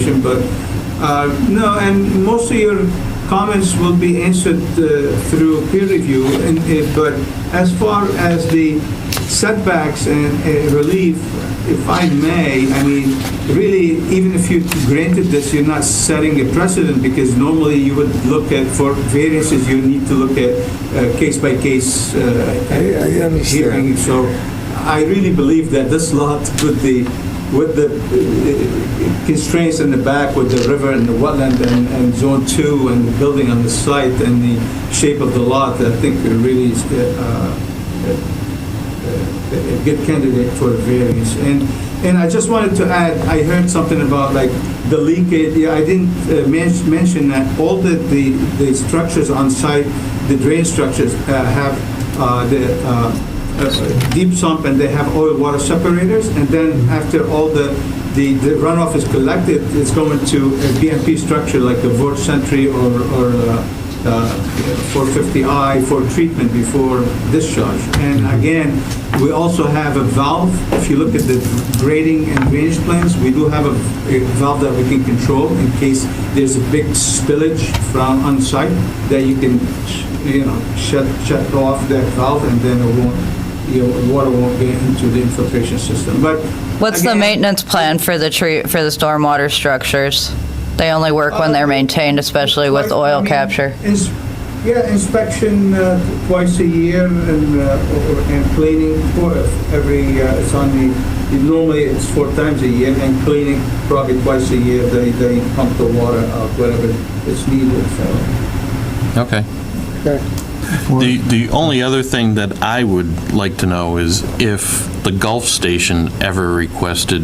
question, but, uh, no, and most of your comments will be answered uh, through peer review, and, uh, but as far as the setbacks and uh, relief, if I may, I mean, really, even if you granted this, you're not setting a precedent, because normally you would look at, for variances, you need to look at uh, case-by-case uh, I- I understand. hearing, so I really believe that this lot with the, with the uh, constraints in the back with the river and the wetland and, and zone two and the building on the site and the shape of the lot, I think it really is, uh, a good uh, candidate for a variance. And, and I just wanted to add, I heard something about like the leakage, yeah, I didn't uh, men- mention that all the, the, the structures on site, the drain structures uh, have uh, the uh, uh, deep sump and they have oil water separators. And then after all the, the the runoff is collected, it's going to a BMP structure like a Vort Sentry or, or uh, uh, 450I for treatment before discharge. And again, we also have a valve, if you look at the grading and drainage plans, we do have a a valve that we can control in case there's a big spillage from on site, that you can, you know, shut, shut off that valve and then it won't, your water won't get into the infiltration system, but. What's the again- maintenance plan for the tree, for the stormwater structures? They only work when they're maintained, especially with Like, I oil mean, capture. ins- Yeah, inspection uh, twice a year and, uh, or- and cleaning for every, uh, it's on the, normally it's four times a year and cleaning probably twice a year. They, they pump the water out wherever it's needed, so. Okay. Okay. The, the only other thing that I would like to know is if the Gulf Station ever requested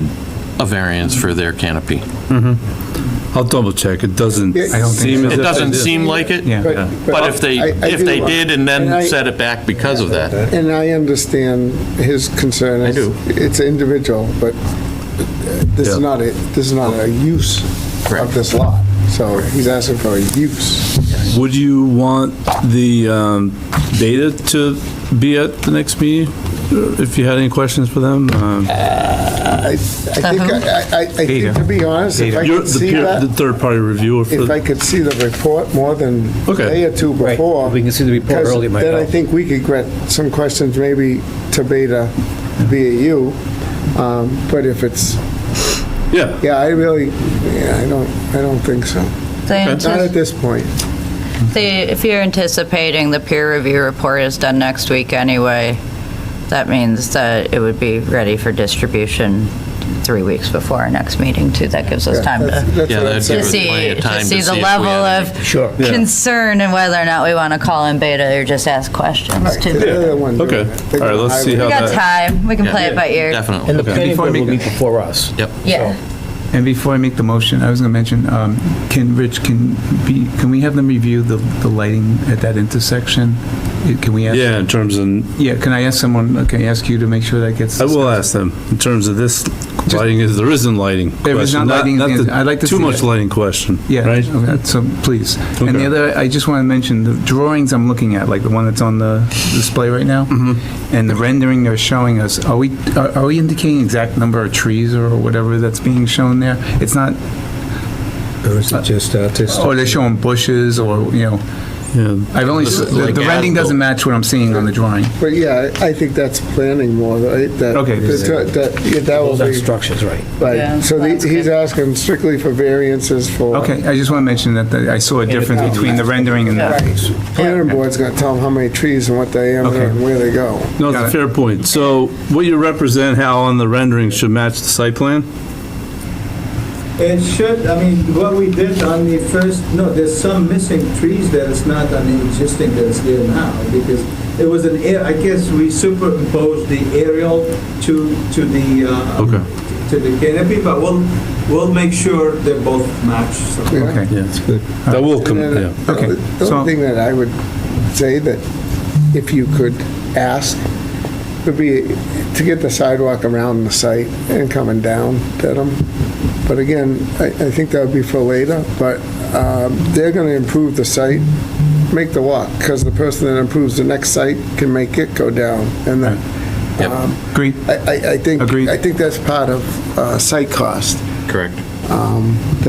a variance for their canopy. I'll double check. It doesn't Yeah, I don't think seem so. It as if they doesn't did. seem like it. Yeah. But- But if they, I- I if do- they did and and I- then set it back because of that, And I understand his concern. I do. It's individual, but this is Yeah. not, a this is not a use of Correct. this lot. So he's asking for a use. Would you want the um, data to be at the next meeting? uh, If you had any questions for them? Um, I, I think, I, I- I think, to be honest, if I you're could The see peer- the that, third-party reviewer for, if I could see the report more than a Okay. day or two Right, before. if we can see the report because early, it might Then I help. think we could get some questions maybe to Beta via you. Um, But if it's, yeah. yeah, I really, yeah, I don't, I don't think so. They Not antici- at this point. they- If you're anticipating the peer review report is done next week anyway, that means that it would be ready for distribution three weeks before our next meeting too. That gives us time That's- to that's Yeah, what I'm that'd saying. to us plenty see, of to time see to see the if we level had of Sure. Yeah. concern and whether or not we want to call in beta or just ask questions Right, too. they're the other one doing Okay. it. They're All right, the let's see highway. We how got time. We can Yeah. play it by ear. And definitely. the planning Before board we will go- meet before us. Yep. Yeah. And before I make the motion, I was going to mention, um, can, Rich, can be, can we have them review the, the lighting at that intersection? Eh, Can we ask? Yeah, in terms of, Yeah, can I ask someone, can I ask you to make sure that gets? I will ask them, in terms of this lighting, is, there isn't lighting There is question, not lighting, the I'd like to Too see much it. lighting question, Yeah, right? okay, so please. And Okay. the other, I just want to mention, the drawings I'm looking at, like the one that's on the display right now, and the rendering they're showing us, are we, are are we indicating exact number of trees or whatever that's being shown there? It's not, Or is it just, uh, just- or they're showing bushes or, you know, Yeah. I've only, This s- is the like the rendering as-built. doesn't match what I'm seeing on the drawing. But yeah, I I think that's planning more, right? That- Okay. That, that- yeah, that will Those are be, structures, right. Yeah, right. So the- that's he's good. asking strictly for variances for. Okay, I just want to mention that the- I saw a difference between the rendering and the, Right. Planning board's gonna tell him how many trees and what diameter Okay. and where they go. No, it's Got a it. fair point. So what you represent, Hal, on the rendering should match the site plan? It should, I mean, what we did on the first, no, there's some missing trees that is not on the existing that's there now, because it was an, air. I guess we superimposed the aerial to, to the, uh, Okay. to the canopy, but we'll, we'll make sure they both match. so. okay. Yeah, it's good. That will come, And yeah. then the Okay, only- uh, The so- only thing that I would say that if you could ask would be to get the sidewalk around the site and coming down Dedham. But again, I, I think that would be for later, but um, they're going to improve the site, make the walk, because the person that improves the next site can make it go down. And then, Yep. um, Agreed? I- I, I think, Agreed. I think that's part of uh, site cost. Correct. Um,